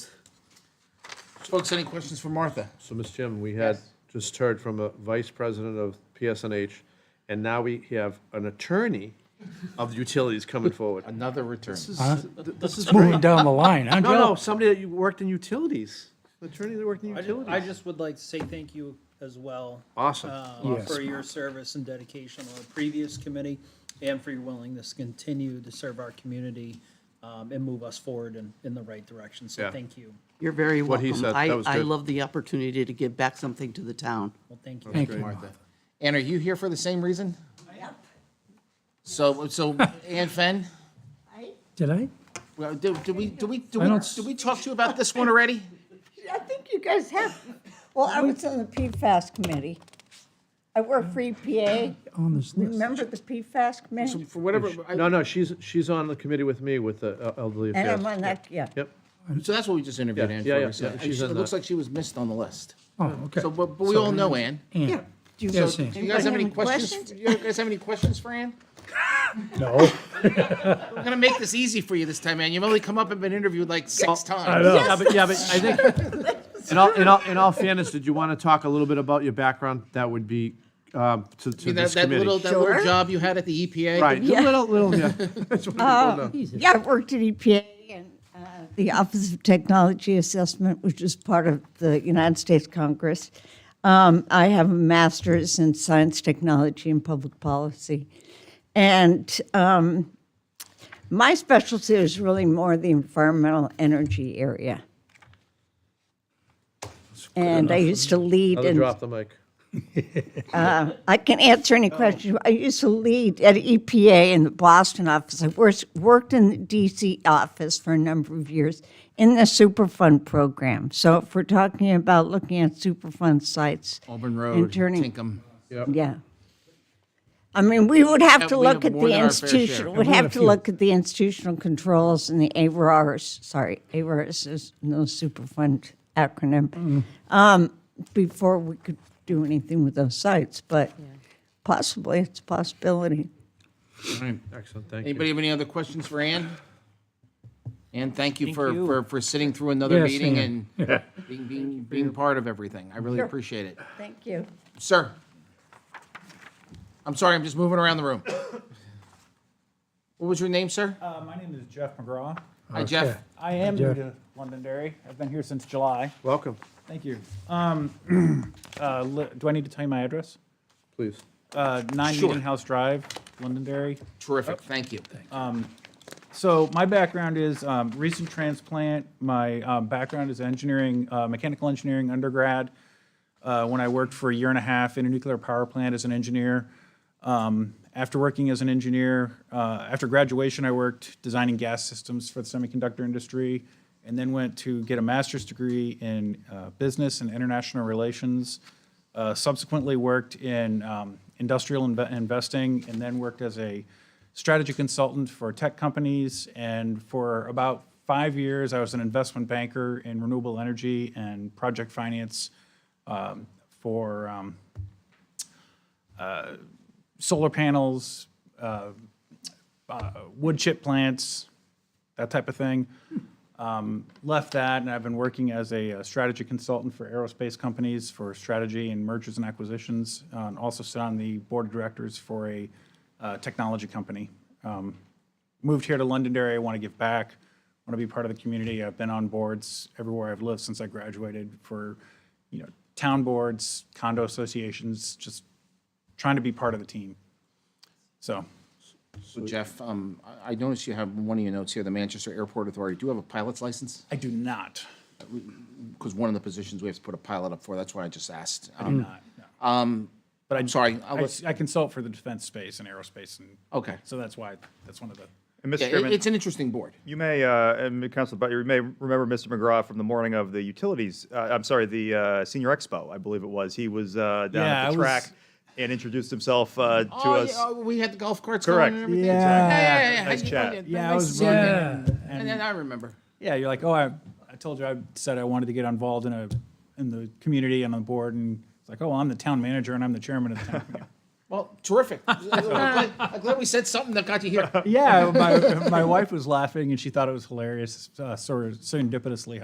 Folks, any questions for Martha? So, Mr. Chairman, we had just heard from a vice president of PSNH, and now we have an attorney of the utilities coming forward. Another return. This is Moving down the line, huh, No, no, Joe? somebody that you worked in utilities, an attorney that worked in I ju- I utilities. just would like to say thank you as well. Awesome. uh, Yes. For your service and dedication on the previous committee and for your willingness to continue to serve our community um, and move us forward in, in the right direction. So Yeah. thank you. You're very What he welcome. said, I, that was I good. love the opportunity to give back something to the town. Well, thank you. Thank you. And are you here for the same reason? I am. So, so Ann Fenn, Did I? well, did, did we, did we, did I we, don't s- did we talk to you about this one already? I think you guys have. Well, I was on the PFAS committee. I work for EPA. On this list. Remember the PFAS committee? For whatever, I- No, no, she's, she's on the committee with me with the uh, elderly And affairs. I'm on that, yeah. Yep, so that's what we just interviewed Yeah, Ann yeah, yeah, for. so- yeah, and she's she- It in looks the- like she was missed on the list. Oh, okay. So, but, but we all know Ann. Ann. Do you- Yes, So Ann. do you guys have any Anybody have any questions? Do you guys have any questions for Ann? No. We're gonna make this easy for you this time, Ann. You've only come up and been interviewed like six times. Yeah, but, yeah, but I think, in all, in all, in all fairness, did you want to talk a little bit about your background? That would be, um, to, to You know, this that little, committee. that little Sure. job you had at the E EPA? Right, Yeah. little, little, yeah. That's what people Oh, know. Yeah, I worked at EPA and uh, the Office of Technology Assessment, which is part of the United States Congress. Um, I have a master's in science, technology, and public policy. And um, my specialty is really more the environmental energy area. And I used to lead I'll in drop the mic. I can answer any questions. I used to lead at EPA in the Boston office. I wors- worked in the DC office for a number of years in the Superfund program. So if we're talking about looking at Superfund sites, Auburn Road, turning- Tinkham. yeah. I mean, we would have to we look have at more the than our fair share. institutional, would we had a have to few. look at the institutional controls and the ARRs, sorry, ARRs is no Mm. Superfund acronym, um, before we could do anything with those sites, but possibly, it's a possibility. Excellent, thank you. Anybody have any other questions for Ann? Ann, thank you for, you. for, for sitting through another Yes, meeting Ann. and being, being, being part of everything. I really appreciate it. Thank you. Sir? I'm sorry, I'm just moving around the room. What was your name, sir? Uh, my name is Jeff McGraw. Hi, Jeff. Okay. I am Jeff. new to Londonderry. I've been here since July. Welcome, Thank you. Um, uh, li- do I need to tell you my address? please. Uh, Nine Sure. Meeting House Drive, Londonderry. Terrific, thank you. So my background is um, recent transplant. My um, background is engineering, uh, mechanical engineering undergrad. Uh, when I worked for a year and a half in a nuclear power plant as an engineer. Um, after working as an engineer, uh, after graduation, I worked designing gas systems for the semiconductor industry, and then went to get a master's degree in uh, business and international relations. Uh, subsequently, worked in um, industrial inve- investing, and then worked as a strategy consultant for tech companies. And for about five years, I was an investment banker in renewable energy and project finance um, for um, uh, solar panels, uh, uh, wood chip plants, that type of thing. Um, Left that, and I've been working as a uh, strategy consultant for aerospace companies for strategy and mergers and acquisitions, uh, and also sit on the board of directors for a uh, technology company. Um, Moved here to Londonderry, I want to give back, want to be part of the community. I've been on boards everywhere I've lived since I graduated for, you know, town boards, condo associations, just trying to be part of the team. So, So Jeff, um, I- I noticed you have one of your notes here, the Manchester Airport Authority. Do you have a pilot's license? I do not, Because one of the positions we have to put a pilot up for, that's why I just asked. do Um, not, no. But I. sorry, I'll I let- I consult for the defense space and aerospace, and. Okay. So that's why, that's one of the, And Mr. Yeah, it- Chairman, it's an interesting board. you may, uh, and Council Butler, you may remember Mr. McGraw from the morning of the utilities, uh, I'm sorry, the uh, Senior Expo, I believe it was. He was uh, down Yeah, I at was- the track and introduced himself uh, to Oh, us. yeah, oh, we had the golf carts Correct. going and everything. Yeah. yeah, yeah, yeah. Nice How'd you- chat. oh, Yeah, I nice was to see you. running And then I remember. yeah, you're like, oh, I, I told you, I said I wanted to get involved in a, in the community and on the board, and it's like, oh, well, I'm the town manager and I'm the chairman of the town. committee." Well, terrific. I'm glad- I'm glad we said something that got you here. Yeah, my, my wife was laughing and she thought it was hilarious, uh, sort of serendipitously